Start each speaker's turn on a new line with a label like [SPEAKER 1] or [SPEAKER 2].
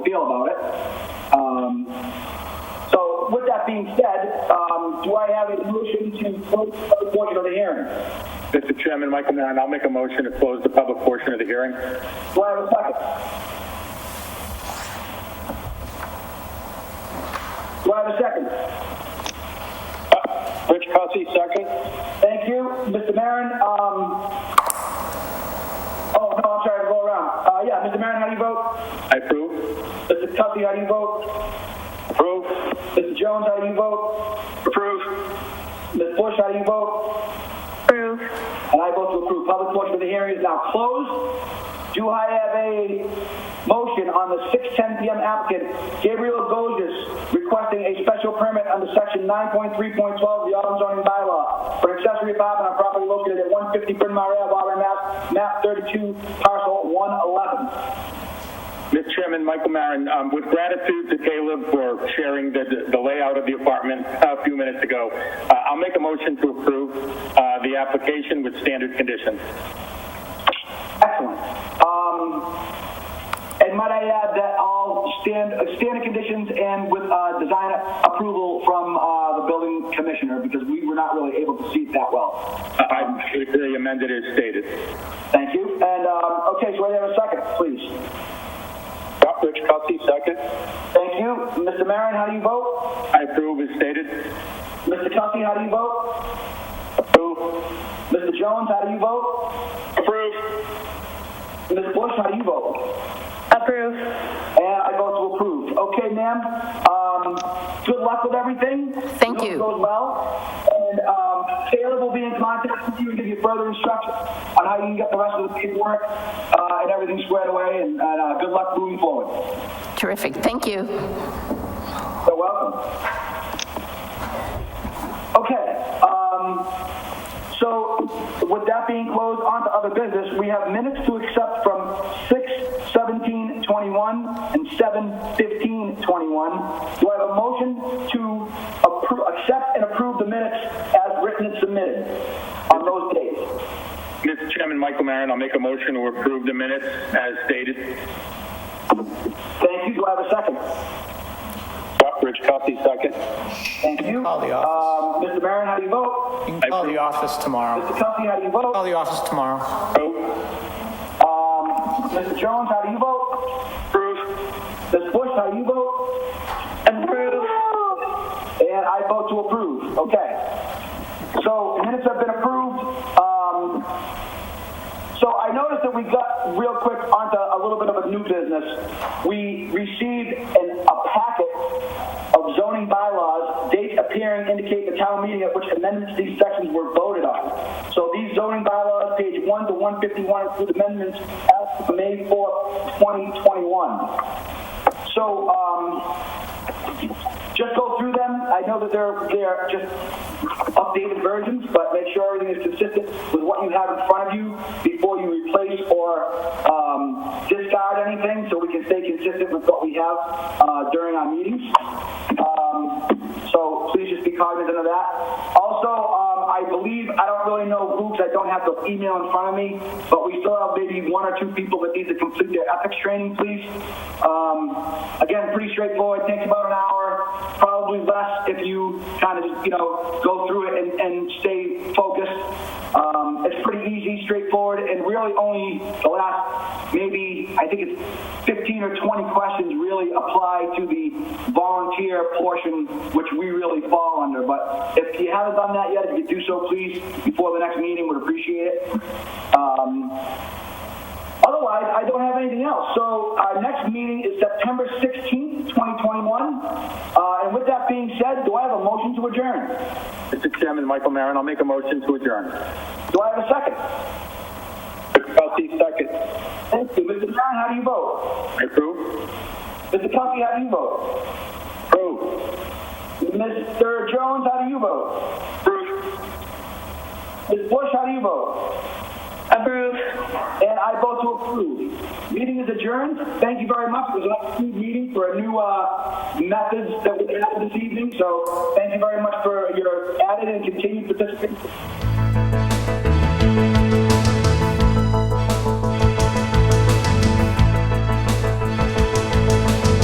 [SPEAKER 1] feel about it. Um, so with that being said, um, do I have a motion to close the public portion of the hearing?
[SPEAKER 2] Mr. Chairman, Michael Maron, I'll make a motion to close the public portion of the hearing.
[SPEAKER 1] Do I have a second? Do I have a second?
[SPEAKER 3] Rich Cussy, second.
[SPEAKER 1] Thank you, Mr. Maron. Um, oh, no, I'm sorry, go around. Uh, yeah, Mr. Maron, how do you vote?
[SPEAKER 2] I approve.
[SPEAKER 1] Mr. Tuffy, how do you vote?
[SPEAKER 3] Approve.
[SPEAKER 1] Mr. Jones, how do you vote?
[SPEAKER 3] Approve.
[SPEAKER 1] Ms. Bush, how do you vote?
[SPEAKER 4] Approve.
[SPEAKER 1] And I vote to approve. Public portion of the hearing is now closed. Do I have a motion on the 6:10 PM applicant Gabriel Goges requesting a special permit under section 9.3.12 of the Auburn zoning bylaw for accessory apartment on property located at 150 Bryn Mawr Ave, Auburn, Mass., map 32, parcel 111.
[SPEAKER 2] Mr. Chairman, Michael Maron, um, with gratitude to Caleb for sharing the, the layout of the apartment a few minutes ago, uh, I'll make a motion to approve uh, the application with standard conditions.
[SPEAKER 1] Excellent. Um, and might I add that all stand, uh, standard conditions and with, uh, design approval from, uh, the building commissioner, because we were not really able to see it that well.
[SPEAKER 2] Uh, I the amended as stated.
[SPEAKER 1] Thank you. And, um, okay, so wait there a second, please.
[SPEAKER 3] Yep, Rich Cussy, second.
[SPEAKER 1] Thank you. Mr. Maron, how do you vote?
[SPEAKER 2] I approve as stated.
[SPEAKER 1] Mr. Cussy, how do you vote?
[SPEAKER 3] Approve.
[SPEAKER 1] Mr. Jones, how do you vote?
[SPEAKER 3] Approve.
[SPEAKER 1] Ms. Bush, how do you vote?
[SPEAKER 4] Approve.
[SPEAKER 1] And I vote to approve. Okay, ma'am, um, good luck with everything. We
[SPEAKER 5] Thank
[SPEAKER 1] hope it
[SPEAKER 5] you.
[SPEAKER 1] Goes well. And, um, Caleb will be in contact with you and give you further instructions on how you can get the rest of the paperwork, uh, and everything squared away, and, and, uh, good luck moving forward.
[SPEAKER 5] Terrific, thank you.
[SPEAKER 1] So welcome. Okay, um, so with that being closed, on to other business, we have minutes to accept from 6, 17, 21, and 7, 15, 21. Do I have a motion to appro, accept and approve the minutes as written and submitted on those dates?
[SPEAKER 2] Mr. Chairman, Michael Maron, I'll make a motion to approve the minutes as stated.
[SPEAKER 1] Thank you, do I have a second?
[SPEAKER 3] Yep, Rich Cussy, second.
[SPEAKER 1] Thank you.
[SPEAKER 6] Call the
[SPEAKER 1] Um, Mr. Barron, how do you vote?
[SPEAKER 6] You can call the office tomorrow.
[SPEAKER 1] Mr. Cuffey, how do you
[SPEAKER 6] Call
[SPEAKER 1] vote?
[SPEAKER 6] the office tomorrow.
[SPEAKER 2] Approve.
[SPEAKER 1] Um, Mr. Jones, how do you vote?
[SPEAKER 2] Approve.
[SPEAKER 1] Ms. Bush, how do you vote?
[SPEAKER 4] Approve.
[SPEAKER 1] And I vote to approve. Okay. So minutes have been approved. Um, so I noticed that we got real quick onto a little bit of a new business. We received an, a packet of zoning bylaws. Dates appearing indicate the town meeting at which amendments to these sections were voted on. So these zoning bylaws, page 1 to 151, include amendments as of May 4th, 2021. So, um, just go through them. I know that they're they're just updated versions, but make sure everything is consistent with what you have in front of you before you replace or um, discard anything, so we can stay consistent with what we have uh, during our meetings. Um, so please just be cognizant of that. Also, um, I believe I don't really know who, 'cause I don't have the email in front of me, but we still have maybe one or two people that need to complete their ethics training, please. Um, again, pretty straightforward. Takes about an hour, probably less if you kind of, you know, go through it and, and stay focused. Um, it's pretty easy, straightforward, and really only the last maybe, I think it's 15 or 20 questions really apply to the volunteer portion, which we really fall under. But if you haven't done that yet, if you could do so, please, before the next meeting, would appreciate it. Um, Otherwise, I don't have anything else. So our next meeting is September 16th, 2021. Uh, And with that being said, do I have a motion to adjourn?
[SPEAKER 2] Mr. Chairman, Michael Maron, I'll make a motion to adjourn.
[SPEAKER 1] Do I have a second?
[SPEAKER 3] Rich Cussy, second.
[SPEAKER 1] Thank you. Mr. Brown, how do you vote?
[SPEAKER 2] I approve.
[SPEAKER 1] Mr. Cuffey, how do you vote?
[SPEAKER 2] Approve.
[SPEAKER 1] Mr. Jones, how do you vote?
[SPEAKER 2] Approve.
[SPEAKER 1] Ms. Bush, how do you vote?
[SPEAKER 4] Approve.
[SPEAKER 1] And I vote to approve. Meeting is adjourned. Thank you very much. It was an excellent meeting for a new uh, methods that we added this evening. So thank you very much for your added and continued participation.